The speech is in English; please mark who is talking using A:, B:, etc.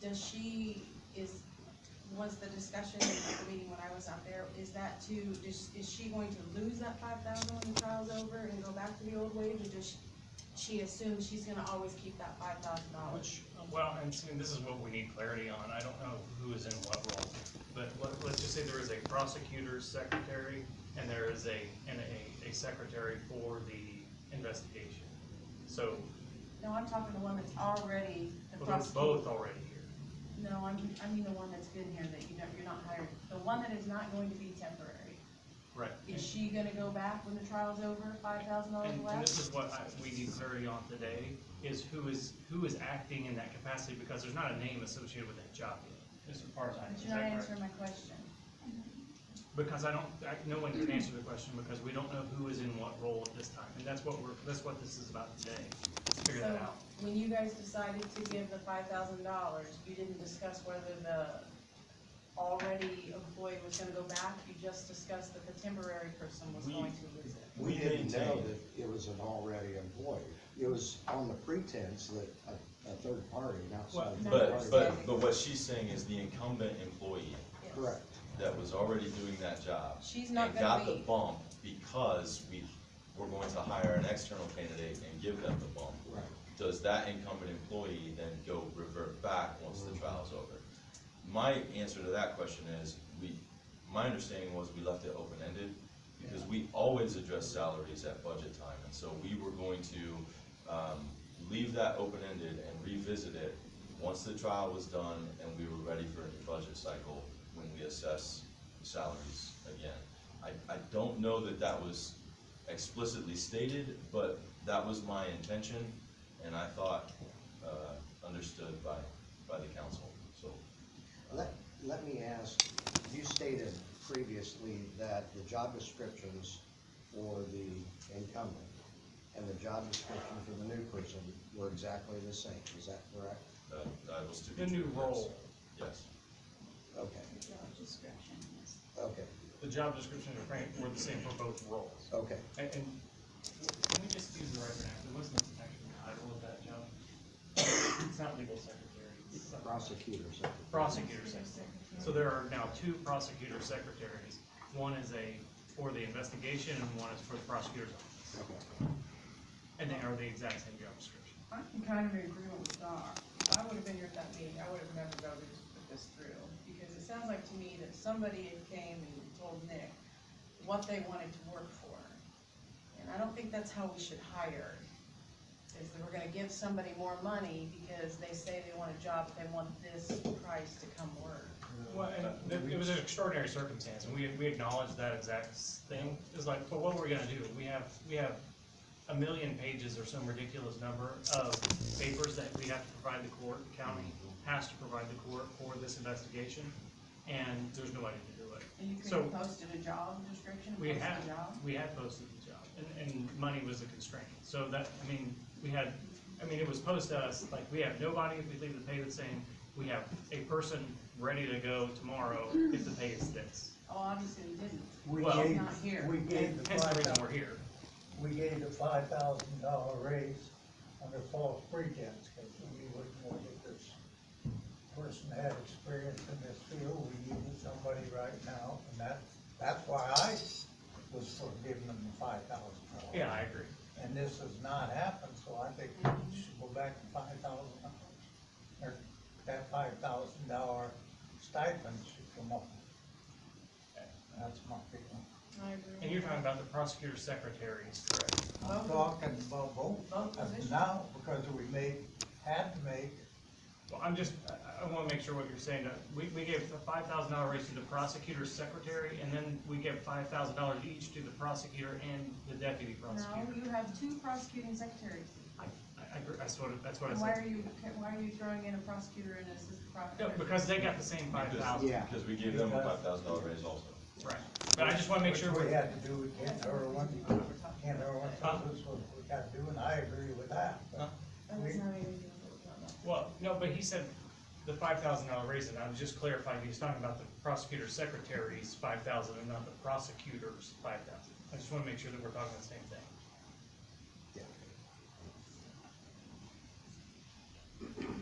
A: does she, is, was the discussion at the meeting when I was out there, is that to, is, is she going to lose that five thousand when the trial's over and go back to the old wage, or does she assume she's gonna always keep that five thousand dollars?
B: Which, well, and see, this is what we need clarity on, I don't know who is in what role, but let, let's just say there is a prosecutor's secretary, and there is a, and a, a secretary for the investigation. So,
A: No, I'm talking the one that's already the
B: well, they're
A: prosecutor.
B: both already here,
A: No, I mean, I mean the one that's been here that you know, you're not hired, the one that is not going to be temporary.
B: right?
A: Is she gonna go back when the trial's over, five thousand dollars
B: And, and
A: less?
B: this is what I, we need clarity on today, is who is, who is acting in that capacity, because there's not a name associated with that job yet, as far as I know.
A: But
B: Is
A: you're not
B: that correct?
A: answering my question.
B: Because I don't, I, no one can answer the question because we don't know who is in what role at this time, and that's what we're, that's what this is about today, is figure that
A: So,
B: out.
A: When you guys decided to give the five thousand dollars, you didn't discuss whether the already employee was gonna go back, you just discussed that the temporary person was
C: We-
A: going to lose it.
D: We didn't know
C: maintain-
D: that it was an already employee. It was on the pretense that a, a third party, an outside
A: Well,
D: third
C: But,
D: party.
C: but, but what she's saying is the incumbent employee
A: Yes.
D: Correct.
C: that was already doing that job.
A: She's not
C: and
A: gonna
C: Got the
A: leave.
C: bump because we, we're going to hire an external candidate and give them the bump.
D: Right.
C: Does that incumbent employee then go revert back once the trial's over? My answer to that question is, we, my understanding was we left it open-ended because we always address salaries at budget time. And so we were going to, um, leave that open-ended and revisit it once the trial was done and we were ready for a new budget cycle when we assess salaries again. I, I don't know that that was explicitly stated, but that was my intention and I thought, uh, understood by, by the council, so. uh,
D: Let, let me ask, you stated previously that the job descriptions for the incumbent and the job description for the new person were exactly the same, is that correct?
C: Uh, That, that was to be.
B: The new
C: true, yes.
B: role,
C: Yes,
D: Okay,
E: job description, yes.
D: okay,
B: the job description and Frank were the same for both roles.
D: okay.
B: And, and let me just use the right vernacular, what's the actual title of that job? It's not legal secretary, it's something-
D: Prosecutors.
B: prosecutor secretary. So there are now two prosecutor secretaries, one is a, for the investigation and one is for the prosecutor's office,
D: Okay.
B: and they are the exact same job description.
A: I'm kind of in agreement with Doc. If I would have been here at that meeting, I would have never voted to put this through. Because it sounds like to me that somebody had came and told Nick what they wanted to work for. And I don't think that's how we should hire. Is that we're gonna give somebody more money because they say they want a job, but they want this price to come work.
B: Well, and it- it was an extraordinary circumstance, and we, we acknowledged that exact s- thing. It's like, but what we're gonna do, we have, we have a million pages or some ridiculous number of papers that we have to provide the court, the county has to provide the court for this investigation, and there's nobody to do it.
A: And you could
B: So-
A: have posted a job description,
B: We
A: posted
B: had,
A: a job.
B: we had posted the job, and, and money was a constraint, so that, I mean, we had, I mean, it was posed to us, like, we have nobody, we leave the pay the same, we have a person ready to go tomorrow if the pay is this.
A: Oh, obviously we didn't.
F: We
B: Well-
F: gave,
A: Not here.
F: we gave the
B: Hence the
F: five
B: reason
F: thousand,
B: we're here.
F: we gave the five thousand dollar raise under false pretense, because we wouldn't want it, this person had experience in this field, we needed somebody right now, and that, that's why I was for giving them the five thousand dollars.
B: Yeah, I agree.
F: And this has not happened, so I think we should go back to five thousand dollars. Or that five thousand dollar stipend should come up. That's my feeling.
A: I agree.
B: And you're talking about the prosecutor's secretary, correct?
F: I'm talking about both
A: Both
F: of
A: positions.
F: them now, because we made, had to make,
B: Well, I'm just, I, I wanna make sure what you're saying, Uh, we, we gave the five thousand dollar raise to the prosecutor's secretary, and then we gave five thousand dollars each to the prosecutor and the deputy
A: No,
B: prosecutor.
A: you have two prosecuting secretaries.
B: I, I, agree. that's what, that's what I
A: And
B: said.
A: Why are you, why are you throwing in a prosecutor and assistant
B: No,
A: prosecutor?
B: because they got the same five thousand,
D: Yeah.
C: because we gave them a five thousand dollar raise also.
B: right, but I just wanna make
F: which
B: sure,
F: we
B: we-
F: had to do with Ken Irwin. Ken Irwin told us what we got to do, and I agree with that, but
A: That was not even- that
B: well, no, but he said the five thousand dollar raise, and I was just clarifying, he was talking about the prosecutor's secretary's five thousand and not the prosecutor's five thousand. I just wanna make sure that we're talking the same thing.